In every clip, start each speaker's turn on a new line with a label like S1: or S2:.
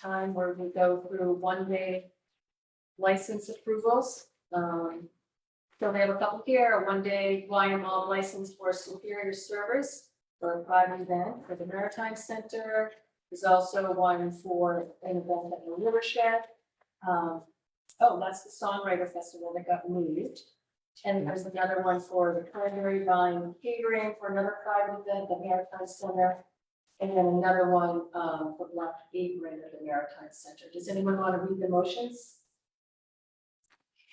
S1: time where we go through one day license approvals. Um, so they have a couple here, a one day YML license for Superior Service for a private event for the Maritime Center. There's also one for an event at the Rivershed. Um, oh, that's the Songwriter Festival that got moved. And there's another one for the primary line catering for another private event, the Maritime Center. And then another one, um, for Black Apron at the Maritime Center. Does anyone want to read the motions?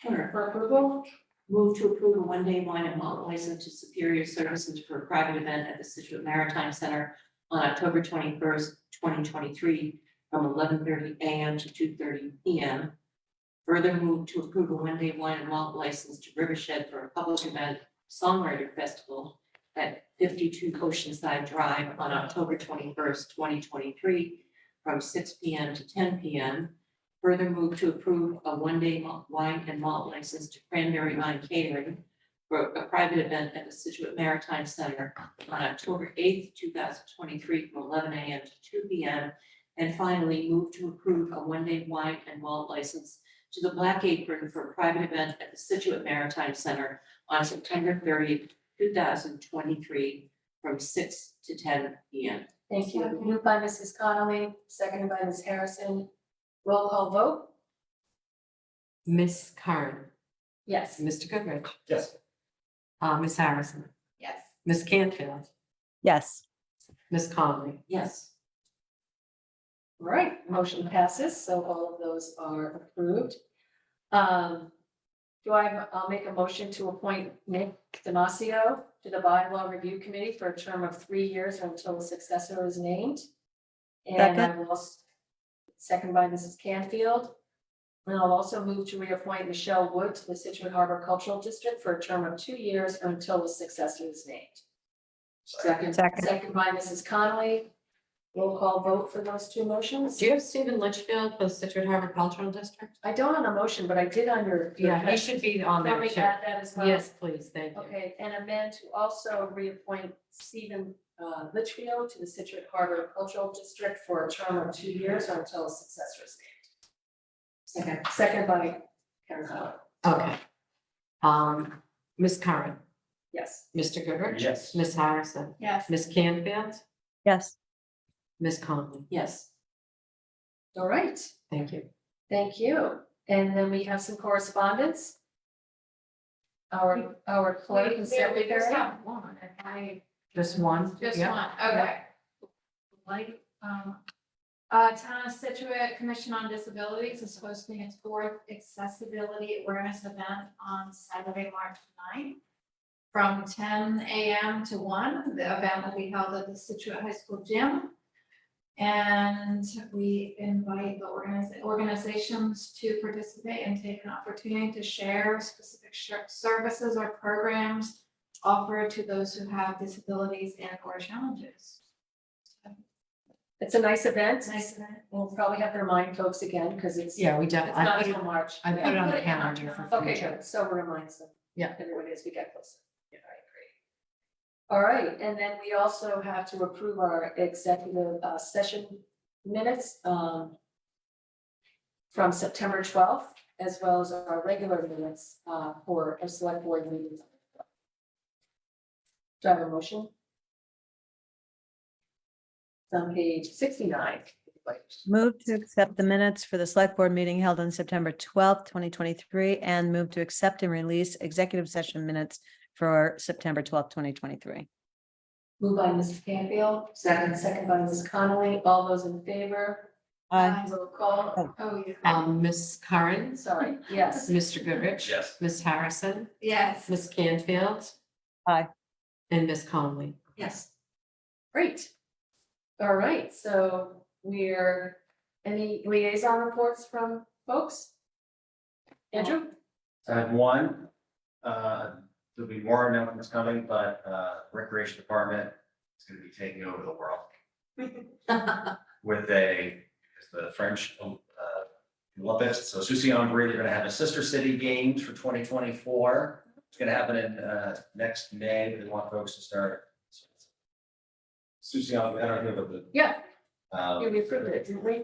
S2: Sure.
S1: For approval?
S2: Move to approve a one-day wine and malt license to Superior Services for a private event at the Situate Maritime Center on October twenty-first, twenty twenty-three, from eleven thirty AM to two thirty PM. Further move to approve a one-day wine and malt license to Rivershed for a public event songwriter festival at fifty-two Oceanside Drive on October twenty-first, twenty twenty-three, from six PM to ten PM. Further move to approve a one-day malt- wine and malt license to Cranberry Wine Catering for a private event at the Situate Maritime Center on October eighth, two thousand twenty-three, from eleven AM to two PM. And finally, move to approve a one-day wine and malt license to the Black Apron for a private event at the Situate Maritime Center on September thirtieth, two thousand twenty-three, from six to ten PM.
S1: Thank you. Moved by Mrs. Connolly, seconded by Ms. Harrison. Roll call vote?
S3: Miss Curran,
S1: Yes.
S3: Mr. Goodrich,
S4: Yes.
S3: uh, Miss Harrison,
S1: Yes.
S3: Miss Canfield,
S5: yes,
S3: Miss Conley.
S2: Yes.
S1: All right, motion passes, so all of those are approved. Um, do I, I'll make a motion to appoint Nick Demasio to the bylaw review committee for a term of three years or until a successor is named. And I
S5: Second.
S1: will, s- second by Mrs. Canfield. And I'll also move to reappoint Michelle Wood to the Citrus Harbor Cultural District for a term of two years or until a successor is named. Second,
S5: Second.
S1: second by Mrs. Connolly. Roll call vote for those two motions.
S3: Do you have Stephen Litchfield for the Citrus Harbor Cultural District?
S1: I don't on a motion, but I did under.
S3: Yeah, he should be on
S1: Let
S3: there.
S1: me
S3: Chair.
S1: add that as well.
S3: Yes, please, thank you.
S1: Okay, and amend to also reappoint Stephen uh, Litchfield to the Citrus Harbor Cultural District for a term of two years or until a successor is named. Second, second by Karen Connolly.
S3: Okay. Um, Miss Curran,
S1: Yes.
S3: Mr. Goodrich.
S4: Yes.
S3: Miss Harrison,
S1: Yes.
S3: Miss Canfield,
S5: yes.
S3: Miss Conley,
S2: Yes.
S1: All right,
S3: thank you.
S1: thank you. And then we have some correspondence. Our, our clerk and
S6: There, we just
S1: secretary.
S6: have one, and I,
S3: Just one?
S6: just
S3: Yeah.
S6: one, okay. Like, um, uh, Town of Situate Commission on Disabilities is hosting its fourth accessibility awareness event on Saturday, March 9th, From ten AM to one, the event will be held at the Situate High School gym. And we invite the organiz- organizations to participate and take an opportunity to share specific shir- services or programs offered to those who have disabilities and or challenges.
S1: It's a nice event.
S6: It's nice of it.
S1: We'll probably have to remind folks again because it's.
S3: Yeah, we
S1: It's
S3: definitely,
S1: not
S3: I put
S1: until
S3: it-
S1: March.
S3: I put it on the
S6: Put it on
S3: calendar
S6: the-
S3: for
S1: Okay,
S3: future.
S1: good, so reminds them.
S3: Yeah.
S1: Everybody as we get closer. Yeah, I agree. All right, and then we also have to approve our executive uh, session minutes um, from September twelfth, as well as our regular minutes uh, for our select board meetings. Do I have a motion? It's On page sixty-nine.
S5: Move to accept the minutes for the select board meeting held on September twelfth, twenty twenty-three, and move to accept and release executive session minutes for September twelfth, twenty twenty-three.
S1: Moved by Mrs. Canfield, second, second by Mrs. Connolly. All those in favor?
S6: Aye.
S1: Roll call.
S6: Oh, yeah.
S3: Um, Miss Curran,
S1: Sorry, yes,
S3: Mr. Goodrich.
S4: Yes.
S3: Miss Harrison,
S6: Yes.
S3: Miss Canfield.
S5: Aye.
S3: And Miss Conley.
S2: Yes.
S1: great. All right, so we're, any liaison reports from folks? Andrew?
S4: I have one, uh, there'll be more announcements coming, but, uh, Recreation Department is gonna be taking over the world with a, it's the French, uh, Olympics. So Susie en Brie, they're gonna have a sister city games for twenty twenty-four. It's gonna happen in, uh, next May, but they want folks to start. Susie en Brie, I don't know, but um, the.
S1: Yeah.
S4: um,
S1: Yeah, we approved it, didn't we?